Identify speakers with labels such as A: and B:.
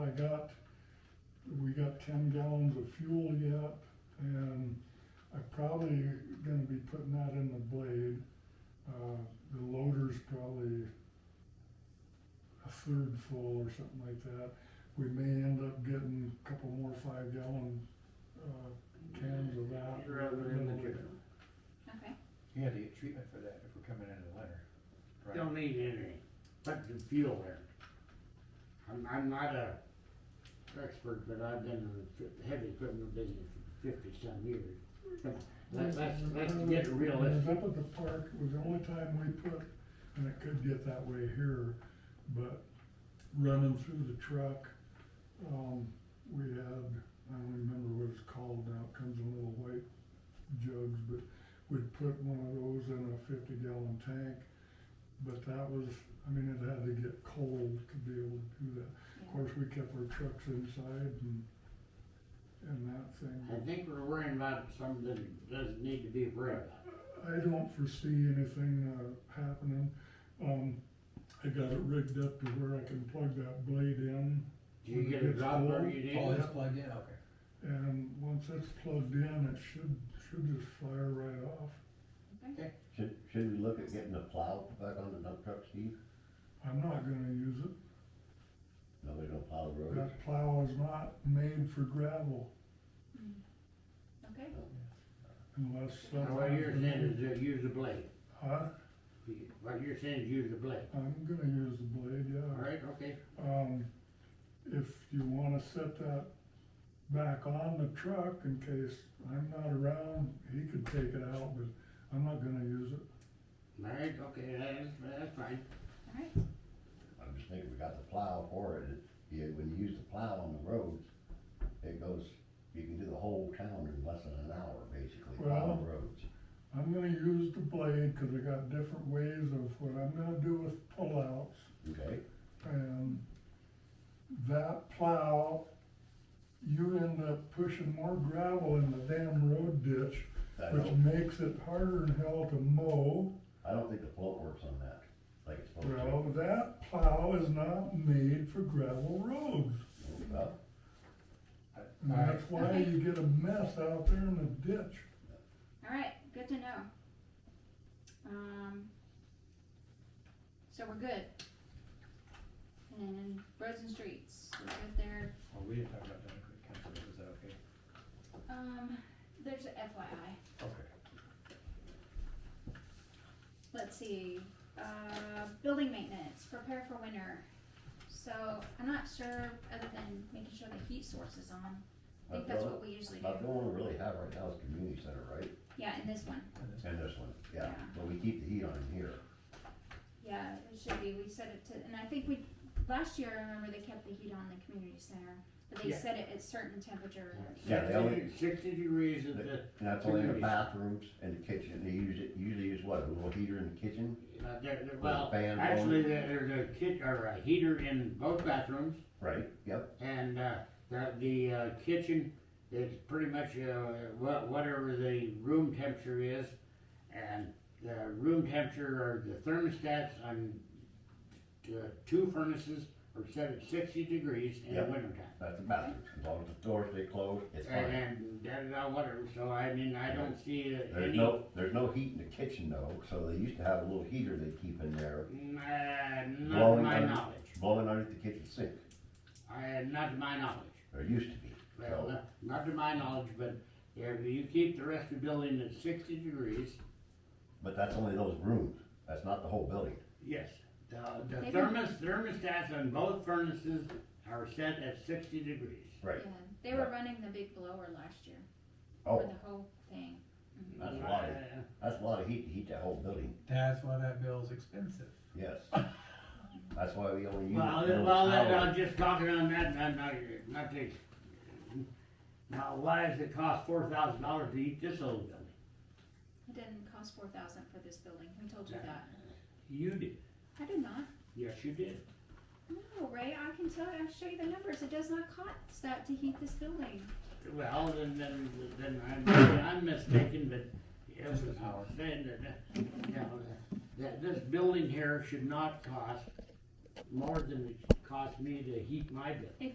A: got, we got ten gallons of fuel yet, and I'm probably gonna be putting that in the blade. Uh, the loader's probably a third full or something like that. We may end up getting a couple more five gallon, uh, cans of that.
B: Rather than the drip.
C: Okay,
D: You had to get treatment for that if we're coming into the winter. right?
B: Don't need any, but the fuel there. I'm, I'm not a expert, but I've been in the fi- heavy equipment business for fifty some years. But Let's, let's, let's get
A: When I was
B: realistic.
A: Up at the park, it was the only time we put, and it could get that way here, but running through the truck, um, we had, I don't remember what it's called now, it comes in little white jugs, but we'd put one of those in a fifty gallon tank. But that was, I mean, it had to get cold to be able to do that. Of course, we kept our trucks inside and, and that thing.
B: I think we're worrying about something that doesn't need to be worried about.
A: I don't foresee anything, uh, happening. Um, I got it rigged up to where I can plug that blade in,
B: Do you get a job where you need?
D: Oh, it's plugged in, okay.
A: and once it's plugged in, it should, should just fire right off.
E: Should, should we look at getting a plow back on the dump truck, Steve?
A: I'm not gonna use it.
E: Nobody don't plow the roads.
A: That plow is not made for gravel
C: okay,
A: unless.
B: Now,
A: something
B: What you're
A: happens.
B: saying is uh, use a blade.
A: Huh?
B: You- What you're saying is use a blade.
A: I'm gonna use the blade,
B: All
A: yeah.
B: right, okay.
A: Um, if you wanna set that back on the truck in case I'm not around, he could take it out, but I'm not gonna use it.
B: All right, okay, that's, that's fine.
C: all right,
E: I'm just thinking we got the plow for it, It- yeah, when you use the plow on the roads, it goes, you can do the whole town in less than an hour, basically, plow the roads.
A: I'm gonna use the blade, cause I got different ways of what I'm gonna do with pullouts,
E: Okay,
A: and that plow, you end up pushing more gravel in the damn road ditch,
E: I
A: which
E: don't,
A: makes it harder than hell to mow.
E: I don't think the float works on that, like it's supposed to.
A: Well, that plow is not made for gravel roads.
E: Well,
A: And that's why you get a mess out there in the ditch.
C: all right, good to know. Um, so we're good. And roads and streets, we're good there.
D: Well, we didn't talk about that, we can't, remember. is that okay?
C: Um, there's a FYI,
D: Okay.
C: let's see, uh, building maintenance, prepare for winter. So I'm not sure, other than making sure the heat source is on, I think
E: But
C: that's
E: the,
C: what we usually do.
E: but the only one we really have right now is community center, right?
C: Yeah, in this one,
D: And this-
E: And this one, yeah,
C: Yeah.
E: but we keep the heat on in here.
C: yeah, it should be, we set it to, and I think we, last year, I remember they kept the heat on the community center, but they
B: Yeah.
C: set it at certain temperature.
E: Yeah, they only-
B: Sixty degrees is the,
E: And that's only in the
B: Communities.
E: bathrooms and the kitchen, they usually, usually use what, a little heater in the kitchen?
B: uh, there- there- well,
E: fan blowing.
B: actually, there- there's a kit, or a heater in both bathrooms.
E: Right, yep.
B: And, uh, the, the uh, kitchen is pretty much, uh, wha- whatever the room temperature is. And the room temperature or the thermostats on t- uh, two furnaces are set at sixty degrees in the
E: Yep.
B: wintertime.
E: That's the bathrooms, as long as the doors stay closed, it's
B: And,
E: fine.
B: and da da da, whatever, so I mean, I don't see uh,
E: There's
B: any.
E: no, there's no heat in the kitchen though, so they used to have a little heater they keep in there,
B: Nah, not to
E: Blowing
B: my
E: under-
B: knowledge.
E: blowing underneath the kitchen sink,
B: I, not to my knowledge.
E: there used to be.
B: Well,
E: So,
B: not, not to my knowledge, but if you keep the rest of the building at sixty degrees,
E: but that's only those rooms, that's not the whole building.
B: yes. The, the
C: Maybe-
B: thermos, thermostats on both furnaces are set at sixty degrees.
C: Yeah,
E: Right.
C: they were
E: Right.
C: running the big blower last year for
E: Oh,
C: the whole thing.
E: That's a lot of-
B: Uh,
E: that's a lot of heat to heat that whole building,
D: That's why that bill's expensive.
E: yes. That's why we only use.
B: Well,
E: it
B: th-
E: for
B: well,
E: an
B: that- uh,
E: hour.
B: I'm just talking on that, not, not, not to. Now, why does it cost four thousand dollars to heat this old building?
C: It didn't cost four thousand for this building, who told you
B: Yeah.
C: that?
B: You did.
C: I did not,
B: Yes, you did.
C: no, Ray, I can tell, I'll show you the numbers, it does not cost that to heat this building.
B: Well, then, then, then I'm, I'm mistaken, but it was,
D: Just the power.
B: saying that, uh, you know, that this building here should not cost more than it cost me to heat my building.